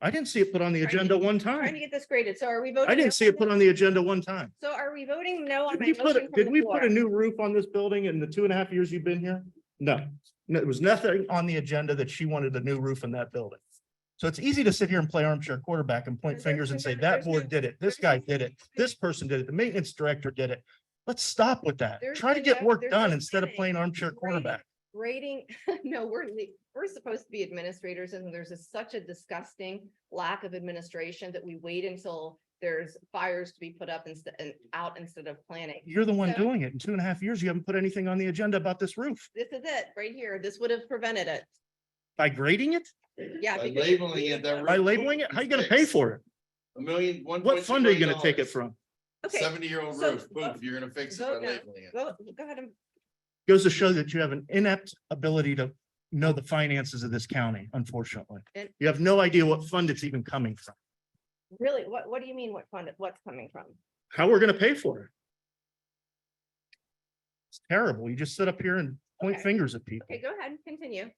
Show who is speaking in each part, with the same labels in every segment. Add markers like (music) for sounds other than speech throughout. Speaker 1: I didn't see it put on the
Speaker 2: Trying to
Speaker 1: agenda
Speaker 2: get-
Speaker 1: one
Speaker 2: Trying to
Speaker 1: time.
Speaker 2: get this graded. So are we voting?
Speaker 1: I didn't see it put on the agenda one time.
Speaker 2: So are we voting no on
Speaker 1: Did
Speaker 2: my
Speaker 1: we
Speaker 2: motion
Speaker 1: put,
Speaker 2: from
Speaker 1: a- did
Speaker 2: the
Speaker 1: we
Speaker 2: floor?
Speaker 1: put a new roof on this building in the two and a half years you've been here? No, no, there was nothing on the agenda that she wanted a new roof in that building. So it's easy to sit here and play armchair quarterback and point
Speaker 2: There's-
Speaker 1: fingers and say
Speaker 2: there's-
Speaker 1: that
Speaker 2: there's no-
Speaker 1: board did it, this guy did it, this person did it, the maintenance director did it. Let's stop with that.
Speaker 2: There's
Speaker 1: Try to
Speaker 2: no
Speaker 1: get
Speaker 2: doubt-
Speaker 1: work
Speaker 2: there's
Speaker 1: done
Speaker 2: no
Speaker 1: instead of
Speaker 2: planning.
Speaker 1: playing armchair
Speaker 2: Right.
Speaker 1: quarterback.
Speaker 2: Grading, (laughs) no, we're, le- we're supposed to be administrators and there's a- such a disgusting lack of administration that we wait until there's fires to be put up instead, and out instead of planning.
Speaker 1: You're the one
Speaker 2: So-
Speaker 1: doing it. In two and a half years, you haven't put anything on the agenda about this roof
Speaker 2: This is it, right here. This would have prevented it.
Speaker 1: by grading it,
Speaker 2: Yeah.
Speaker 3: By
Speaker 2: because-
Speaker 3: labeling it, that
Speaker 1: by labeling it. How you gonna pay for it?
Speaker 3: A million, one.
Speaker 1: What fund are you gonna take it from?
Speaker 2: Okay,
Speaker 3: Seventy-year-old
Speaker 2: so
Speaker 3: roof, boom,
Speaker 2: vote-
Speaker 3: you're gonna fix it by
Speaker 2: vote no.
Speaker 3: labeling it.
Speaker 2: go, go ahead and,
Speaker 1: goes to show that you have an inept ability to know the finances of this county, unfortunately.
Speaker 2: And-
Speaker 1: You have no idea what fund it's even coming from,
Speaker 2: really, what, what do you mean what fund, what's coming from?
Speaker 1: how we're gonna pay for it. It's terrible. You just sit up here and point
Speaker 2: Okay.
Speaker 1: fingers at people.
Speaker 2: Okay, go ahead and continue.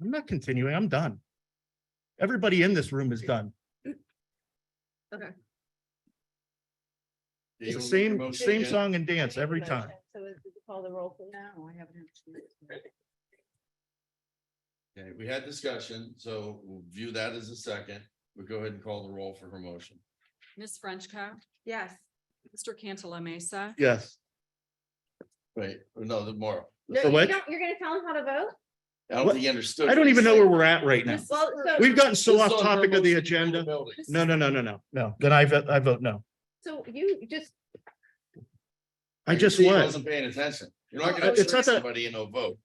Speaker 1: I'm not continuing. I'm done. Everybody in this room is done.
Speaker 3: Do
Speaker 1: It's
Speaker 3: you
Speaker 1: the
Speaker 3: wanna make a
Speaker 1: same,
Speaker 3: motion
Speaker 1: same
Speaker 3: again?
Speaker 1: song and dance
Speaker 2: Okay,
Speaker 1: every
Speaker 2: motion.
Speaker 1: time.
Speaker 2: So is it call the roll? please?
Speaker 4: No, Oh, I haven't. had a chance to.
Speaker 3: Okay, we had discussion, so we'll view that as a second. We'll go ahead and call the roll for her motion.
Speaker 4: Ms. Frenchco,
Speaker 2: Yes.
Speaker 4: Mr. Cantala Mesa,
Speaker 1: Yes.
Speaker 3: Wait, no, the more.
Speaker 2: No,
Speaker 1: So
Speaker 2: you
Speaker 1: what?
Speaker 2: don't- You're gonna tell him how to vote?
Speaker 3: I don't
Speaker 1: What?
Speaker 3: think you understood.
Speaker 1: I don't
Speaker 3: what
Speaker 1: even
Speaker 3: he
Speaker 1: know where
Speaker 3: said.
Speaker 1: we're at right now.
Speaker 2: Well, so-
Speaker 1: We've gotten so
Speaker 3: This
Speaker 1: off
Speaker 3: is on her
Speaker 1: topic of the
Speaker 3: motion to build a
Speaker 1: agenda.
Speaker 3: building.
Speaker 1: No, no, no, no, no, no. Then I, vote- I vote no.
Speaker 2: So you just,
Speaker 1: I
Speaker 3: can
Speaker 1: just
Speaker 3: see he
Speaker 1: was.
Speaker 3: Wasn't paying attention. You're not
Speaker 2: Well,
Speaker 3: gonna
Speaker 2: Uh, it's
Speaker 3: trick
Speaker 1: not that-
Speaker 3: somebody in a vote.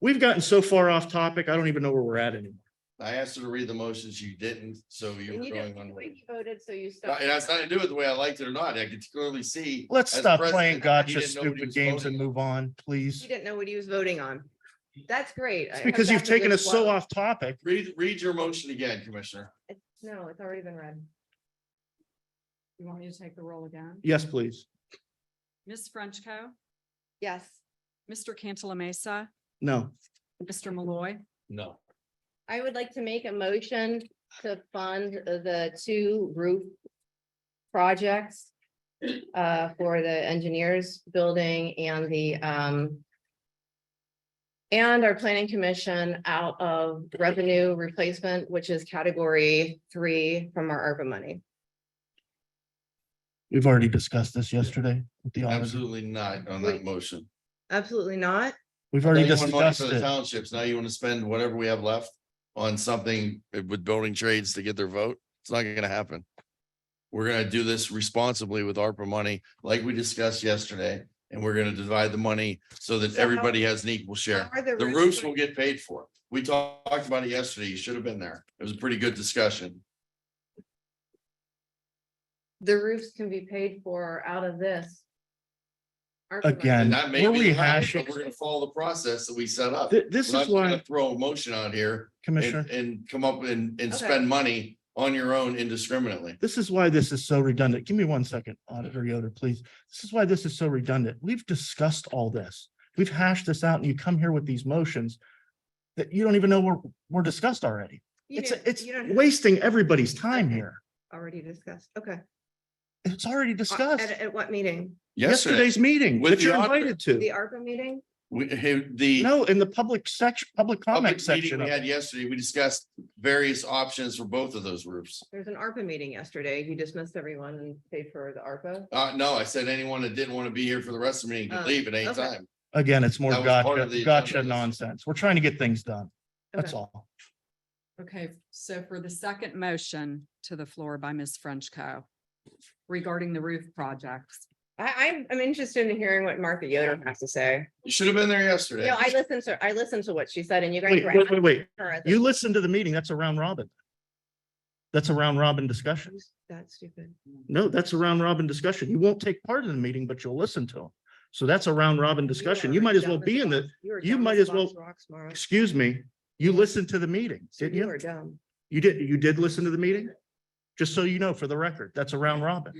Speaker 1: We've gotten so far off topic. I don't even know where we're at anymore.
Speaker 3: I asked her to read the motions, you didn't, so you
Speaker 2: and
Speaker 3: were
Speaker 2: you don't,
Speaker 3: going on.
Speaker 2: the
Speaker 3: a
Speaker 2: way
Speaker 3: rant.
Speaker 2: you voted, so you
Speaker 3: No,
Speaker 2: stopped.
Speaker 3: It has nothing to do with the way I liked it or not. I could clearly see.
Speaker 1: Let's
Speaker 3: as
Speaker 1: stop playing
Speaker 3: president, he
Speaker 1: gotcha
Speaker 3: didn't know what he
Speaker 1: stupid
Speaker 3: was
Speaker 1: games
Speaker 3: voting
Speaker 1: and
Speaker 3: on.
Speaker 1: move on,
Speaker 2: He
Speaker 1: please.
Speaker 2: didn't know what he was voting on. That's great.
Speaker 1: It's
Speaker 2: I-
Speaker 1: because
Speaker 2: I'm
Speaker 1: you've
Speaker 2: back to
Speaker 1: taken
Speaker 2: good
Speaker 1: us so
Speaker 2: flow.
Speaker 1: off topic.
Speaker 3: Read, read your motion again, Commissioner.
Speaker 2: It's- No, it's already been read.
Speaker 4: you want me to take the roll again?
Speaker 1: Yes, please.
Speaker 4: Ms. Frenchco,
Speaker 2: Yes,
Speaker 4: Mr. Cantala Mesa,
Speaker 1: No.
Speaker 4: Mr. Malloy,
Speaker 3: No.
Speaker 2: I would like to make a motion to fund the two roof projects uh, for the engineers building and the um and our planning commission out of revenue replacement, which is category three from our ARPA money.
Speaker 1: We've already discussed this yesterday with the auditor.
Speaker 3: Absolutely not on
Speaker 2: Wait.
Speaker 3: that motion.
Speaker 2: Absolutely not.
Speaker 1: We've
Speaker 3: Now
Speaker 1: already
Speaker 3: you want money
Speaker 1: discussed
Speaker 3: for the
Speaker 1: it.
Speaker 3: Townships, now you want to spend whatever we have left on something with building trades to get their vote? It's not gonna happen. We're gonna do this responsibly with ARPA money, like we discussed yesterday, and we're gonna divide the money so that
Speaker 2: So how-
Speaker 3: everybody has an equal share.
Speaker 2: How are
Speaker 3: The
Speaker 2: roofs
Speaker 3: roofs
Speaker 2: going-
Speaker 3: will get paid for. We talked about it yesterday. You should have been there. It was a pretty good discussion.
Speaker 2: The roofs can be paid for out of this. ARPA money.
Speaker 1: Again. And
Speaker 3: And that may
Speaker 1: we're
Speaker 3: be, the fact,
Speaker 1: rehashing-
Speaker 3: but we're gonna follow the process that we set up.
Speaker 1: Th- This
Speaker 3: We're
Speaker 1: is
Speaker 3: not gonna
Speaker 1: why,
Speaker 3: Throw a motion out here
Speaker 1: Commissioner,
Speaker 3: and, and come up and, and
Speaker 2: Okay.
Speaker 3: spend money on your own indiscriminately.
Speaker 1: this is why this is so redundant. Give me one second, Auditor Yoder, please. This is why this is so redundant. We've discussed all this. We've hashed this out and you come here with these motions that you don't even know were, were discussed already.
Speaker 2: You
Speaker 1: It's,
Speaker 2: didn't-
Speaker 1: it's
Speaker 2: you don't have
Speaker 1: wasting everybody's time here.
Speaker 2: Already discussed, okay.
Speaker 1: It's already
Speaker 2: Uh, At,
Speaker 1: discussed.
Speaker 2: at what meeting?
Speaker 3: Yesterday,
Speaker 1: Yesterday's meeting
Speaker 3: with
Speaker 1: that
Speaker 3: the
Speaker 1: you're
Speaker 3: auditor.
Speaker 1: invited to.
Speaker 2: The ARPA meeting?
Speaker 3: we, hey, the
Speaker 1: No, in the public section, public comment
Speaker 3: public meeting
Speaker 1: section.
Speaker 3: we
Speaker 1: of-
Speaker 3: had yesterday, we discussed various options for both of those roofs.
Speaker 2: There's an ARPA meeting yesterday. You dismissed everyone and paid for the ARPA.
Speaker 3: Uh, no, I said anyone that didn't want to be here for the rest of the meeting could
Speaker 2: Uh,
Speaker 3: leave at any
Speaker 2: okay.
Speaker 3: time.
Speaker 1: Again, it's more
Speaker 3: That was part of
Speaker 1: gotcha,
Speaker 3: the
Speaker 1: gotcha
Speaker 3: agenda.
Speaker 1: nonsense. We're trying to get things done. That's
Speaker 2: Okay.
Speaker 1: all.
Speaker 4: Okay, so for the second motion to the floor by Ms. Frenchco regarding the roof projects.
Speaker 2: I, I'm, I'm interested in hearing what Martha Yoder has to say.
Speaker 3: You should have been there
Speaker 2: You
Speaker 3: yesterday.
Speaker 2: know, I listened to, I listened to what she said and you guys
Speaker 1: Wait,
Speaker 2: were
Speaker 1: wait,
Speaker 2: asking
Speaker 1: wait, wait.
Speaker 2: her. at the-
Speaker 1: You listen to the meeting. That's a round robin. That's a round robin discussion.
Speaker 2: That's stupid.
Speaker 1: No, that's a round robin discussion. You won't take part in the meeting, but you'll listen to them. So that's a round robin discussion. You might as well be in the,
Speaker 2: You are
Speaker 1: you
Speaker 2: dumb
Speaker 1: might
Speaker 2: as
Speaker 1: as well-
Speaker 2: rocks, rocks, Mara.
Speaker 1: excuse me, you listened to the meeting, didn't
Speaker 2: You
Speaker 1: you?
Speaker 2: are dumb.
Speaker 1: You did, you did listen to the meeting? Just so you know, for the record, that's a round robin.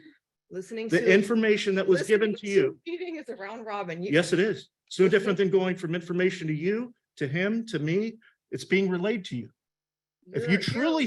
Speaker 2: Listening to.
Speaker 1: The information that was given
Speaker 2: (laughs) listening
Speaker 1: to you
Speaker 2: Meeting is a round robin. You-
Speaker 1: Yes, it is. It's no different than going from information to you, to him, to me. It's being relayed to you. If
Speaker 2: you're-
Speaker 1: you
Speaker 2: you're-
Speaker 1: truly